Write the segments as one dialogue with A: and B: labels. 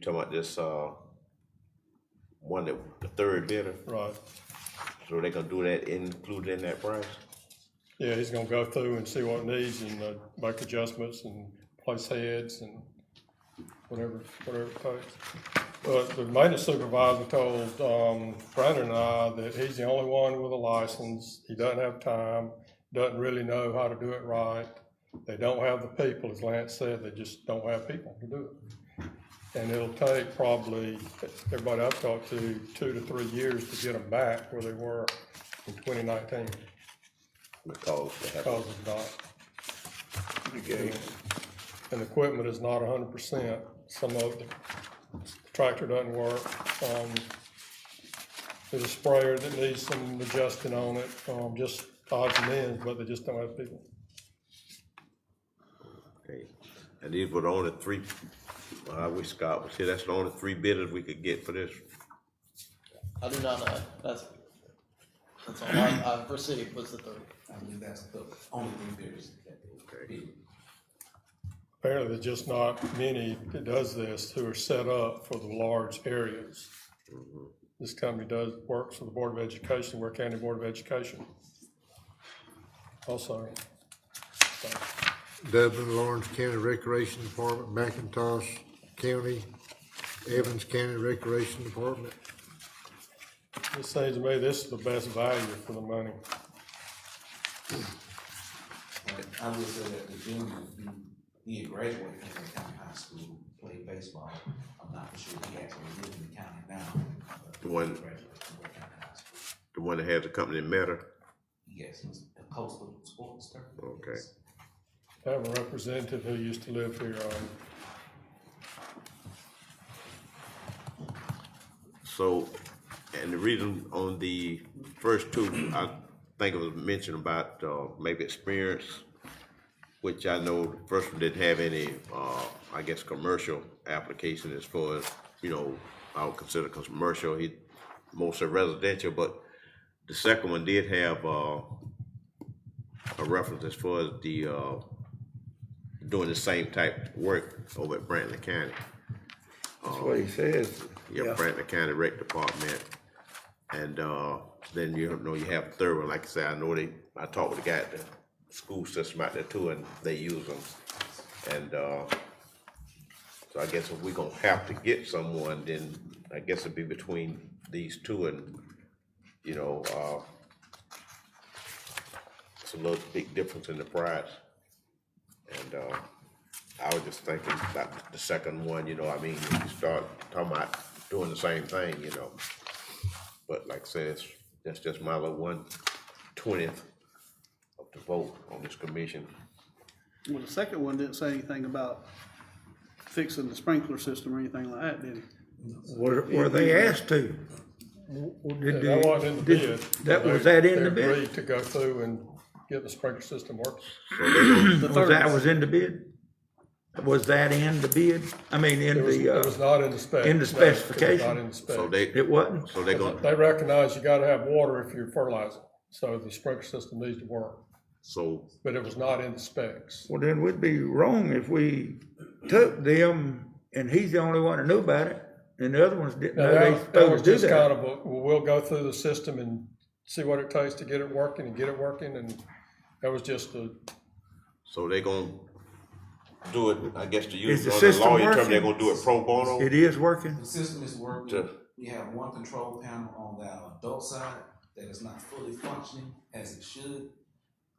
A: talking about this, uh, one that, the third bidder,
B: Right.
A: so they gonna do that included in that price?
B: Yeah, he's gonna go through and see what it needs and uh, make adjustments and place heads and whatever, whatever it takes. But the maintenance supervisor told, um, Brandon and I that he's the only one with a license. He doesn't have time, doesn't really know how to do it right. They don't have the people, as Lance said, they just don't have people to do it. And it'll take probably, everybody I've talked to, two to three years to get them back where they were in twenty nineteen
A: Because they have
B: because of not. And the equipment is not hundred percent, some of the tractor doesn't work, um, there's a sprayer that needs some adjusting on it, um, just odds and ends, but they just don't have people.
A: Okay, and these were the only three, well, I wish Scott was here, that's the only three bidders we could get for this.
C: I do not know. That's that's all. I, I, for city was the third.
D: I believe that's the only thing there's that they
A: Okay.
D: bid.
B: Apparently, there's just not many that does this who are set up for the large areas. This company does, works for the Board of Education, Ware County Board of Education. Also,
E: Dublin, Lawrence County Recreation Department, McIntosh County, Evans County Recreation Department.
B: It seems to me this is the best value for the money.
D: I would say that the junior, he, he had graduated from the county high school, played baseball. I'm not sure if he actually lives in the county now. but he
A: One-
D: graduated from Ware County High School.
A: The one that has the company matter,
D: Yes, he's a coastal sports star.
A: Okay.
D: Yes.
B: I have a representative who used to live here um, on,
A: so, and the reason on the first two, I think it was mentioned about, uh, maybe experience, which I know the first one didn't have any, uh, I guess, commercial application as far as, you know, I would consider commercial, he, mostly residential, but the second one did have, uh, a reference as far as the, uh, doing the same type work over at Brantley County.
F: That's what he says.
A: your Franklin County Rec Department. And, uh, then you know you have a third one, like I said, I know they, I talked with the guy at the school system out there too, and they use them. And, uh, so I guess if we are gonna have to get someone, then I guess it'd be between these two and, you know, uh, it's a little big difference in the price. And, uh, I was just thinking about the second one, you know, I mean, you start talking about doing the same thing, you know. But like I said, it's, that's just my little one twentieth of the vote on this commission.
G: Well, the second one didn't say anything about fixing the sprinkler system or anything like that, did it?
F: Were, were they asked to? Did
B: that wasn't in the
F: did-
B: bid.
F: That,
B: They-
F: was that in the
B: they
F: bid?
B: agreed to go through and get the sprinkler system working.
G: The
F: Was
G: third,
F: that was in the bid? Was that in the bid? I mean, in
B: It was,
F: the,
B: it was
F: uh,
B: not in the spec. No,
F: in the
B: it was
F: specification.
B: Not in the spec.
A: So they,
F: it wasn't?
A: so they gonna,
B: They recognize you gotta have water if you're fertilizing, so the sprinkler system needs to work,
A: so,
B: but it was not in the specs.
F: Well, then we'd be wrong if we took them and he's the only one that knew about it and the other ones didn't
B: Now,
F: know they
B: that, that was
F: supposed to do
B: just kind
F: that.
B: of, a, well, we'll go through the system and see what it takes to get it working and get it working, and that was just a,
A: so they gonna do it, I guess to
F: Is
A: use
F: the
A: on the
F: system
A: lawyer term,
F: working?
A: they're gonna do it pro bono?
F: It is working?
D: The system is working,
A: Jeff.
D: we have one control panel on the adult side that is not fully functioning as it should.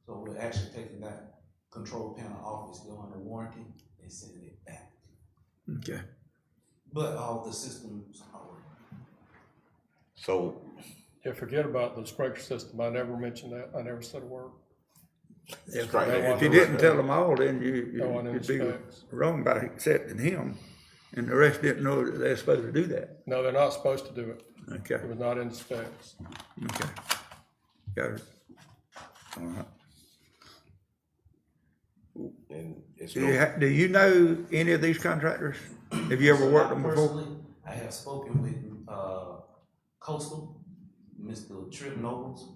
D: So we're actually taking that control panel off, it's going to warranty and sending it back.
F: Okay.
D: But all the systems are working.
A: So,
B: yeah, forget about the sprinkler system, I never mentioned that, I never said a word.
F: If
A: Right.
F: if you didn't tell them all, then you,
B: No one
F: you- you'd be
B: inspects.
F: wrong by accepting him and the rest didn't know that they're supposed to do that.
B: No, they're not supposed to do it.
F: Okay,
B: It was not in the specs.
F: okay. Got it. All right.
A: and it's
F: Do you,
A: no,
F: ha- do you know any of these contractors? Have you ever worked them before?
D: Personally, I have spoken with, uh, Coastal, Mr. Trip Nobles,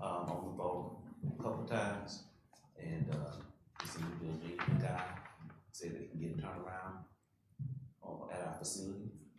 D: um, on the phone a couple times. And, uh, this new building guy said that he can get a turnaround on, at our facility.